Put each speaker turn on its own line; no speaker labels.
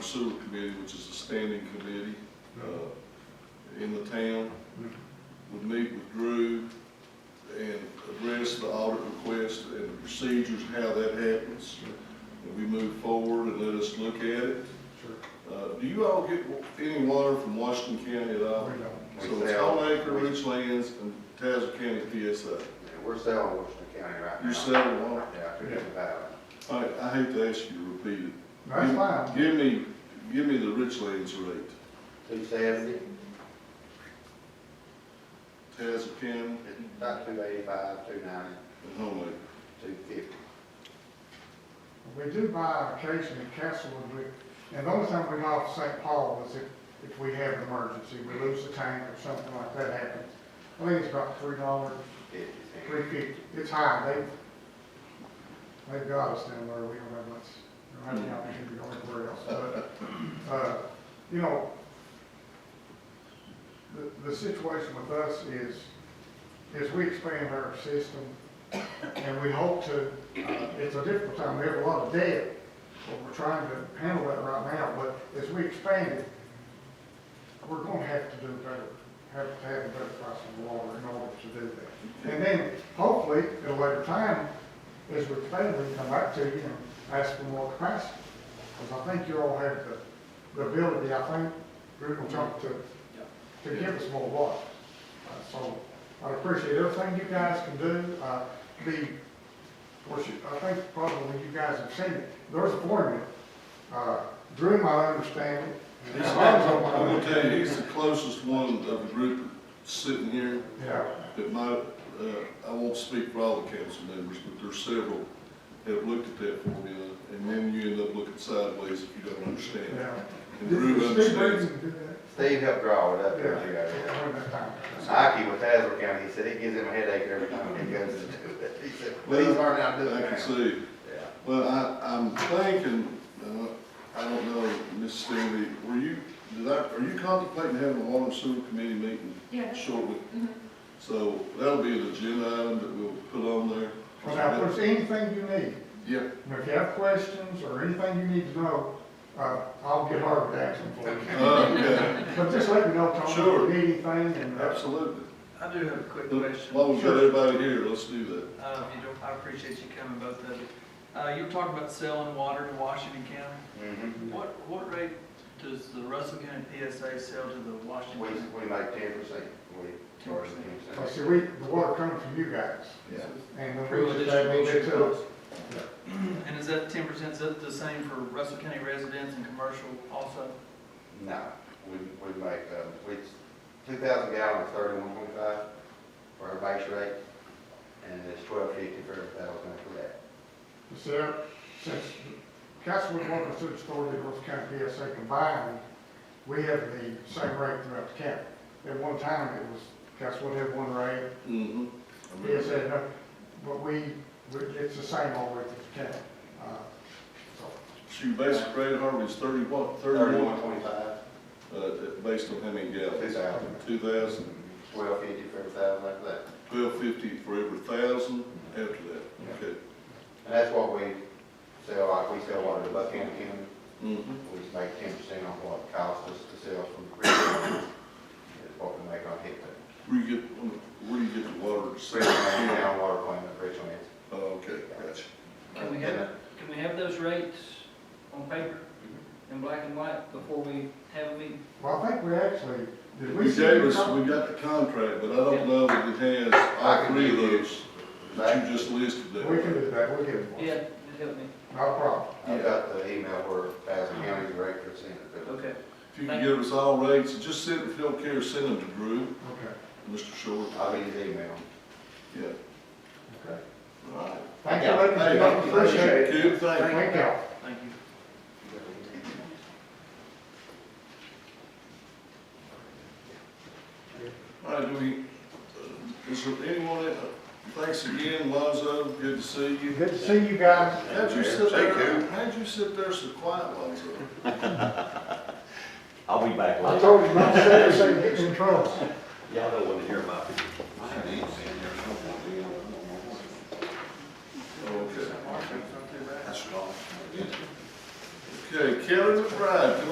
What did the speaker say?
Sewer Committee, which is a standing committee, uh, in the town, would meet with Drew and address the audit request and the procedures, how that happens. And we move forward and let us look at it. Uh, do you all get any water from Washington County at all?
We don't.
So it's Stone Acre, Richlands, and Tazewell County PSA.
We're selling Washington County right now.
You're selling water?
Yeah, to the valley.
All right, I hate to ask you to repeat it.
That's fine.
Give me, give me the Richlands rate.
Two seventy,
Tazewell County
about two eighty-five, two ninety,
and Home Acre.
two fifty.
We do buy occasionally Castlewood, we, and the only time we lost St. Paul was if, if we have an emergency, we lose a tank or something like that happens. I think it's about three dollars,
fifty
three
cents.
fifty, it's high, they, they've got us down where we don't have much, don't have any opportunity to go anywhere else, but, uh, you know, the, the situation with us is, is we expand our system, and we hope to, uh, it's a difficult time, we have a lot of debt, but we're trying to handle that right now, but as we expand it, we're gonna have to do better, have to have a better price of water in order to do that. And then hopefully, at a later time, as we expand, we can come back to you and ask for more capacity. Because I think you all have the, the ability, I think, Drew will jump to, to give us more water. Uh, So I appreciate everything you guys can do. Uh, The, of course, you- I think probably you guys have seen it, there's a formula. Uh, Drew, my understanding. and
He's-
Alonzo,
I'm
my
gonna tell you,
understanding-
he's the closest one of the group sitting here
Yeah,
that might, uh, I won't speak for all the council members, but there's several have looked at that formula, and then you end up looking sideways if you don't understand it.
yeah.
And Drew understands.
Steve helped draw it up there,
Yeah.
you got it.
Well,
Ike with Tazewell County, he said it gives him a headache every time he goes to do it. He said, please learn how to do
I
it
can
now.
see.
Yeah.
Well, I, I'm thinking, uh, I don't know, Ms. Stanley, were you, did I, are you contemplating having a water and sewer committee meeting
Yeah.
shortly?
Mhm.
So that'll be an agenda item that we'll put on there.
now, if there's anything you need,
Yep,
and if you have questions or anything you need to know, uh, I'll get Harvard action for you.
uh, okay,
But just let me know, Tom, if
Sure.
you need anything, and uh,
absolutely.
I do have a quick
As
question.
long as we've got everybody here, let's do that.
Uh, if you don't, I appreciate you coming, both of you. Uh, you were talking about selling water to Washington County.
Mhm.
What, what rate does the Russell County PSA sell to the
We,
Washington?
we make ten percent, we charge ten
well, see,
percent.
we, the water comes from you guys,
Yeah.
and then
Through
we just add a little bit to
additional
it.
And is that ten percent, is that the same for Russell County residents and commercial also?
No, we, we make, um, we, two thousand gallons, thirty-one point five for our base rate, and it's twelve fifty for every thousand after that.
So, uh, since Castlewood Water and Sewer Authority, and North County PSA combined, we have the same rate throughout the county. At one time, it was, Castlewood had one rate,
Mm-hmm.
Yes, and, uh, but we, we- it's the same all the way through the county. Uh, so,
Shoot, basic rate of harvey is thirty what,
Thirty-one
thirty-one,
twenty-five,
uh, based on how many
two
gallons?
thousand,
Two thousand,
twelve fifty for every thousand after that.
twelve fifty for every thousand after that, okay.
And that's what we sell, like, we sell water to Buckingham County,
Mm-hmm.
we just make ten percent on what it costs us to sell from the creek. It's what we make on hit, but,
Where you get, um, where do you get the water?
Richland, down water plant, the Richland, it's
Oh, okay, gotcha.
Can we have, can we have those rates on paper in black and white before we have a meeting?
Well, I think we actually, did we
We
see?
gave
you
us,
come-
we got the contract, but I don't know that it has all three of those that you just listed
We can
there.
do that, we'll give it one.
Yeah, just help me.
Not a problem.
I got the email where Basil County Director sent it, but
Okay.
If you can give us all rates, and just send, if you don't care, send them to Drew,
Okay,
Mr. Short.
I'll get his email.
Yeah,
okay.
all right.
Thank you, ladies and gentlemen, appreciate it.
Good, thank you.
Thank you.
Thank you.
All right, do we, uh, is there anyone, that- thanks again, Lonzo, good to see you.
Good to see you guys.
How'd you sit there, how'd you sit there so quiet, Lonzo?
I'll be back
I
later.
told you not to say this, they get in trouble.
Y'all don't want to hear my opinion.
Okay.
Washington's not too bad.
That's wrong. Okay, Kelly McBride, come on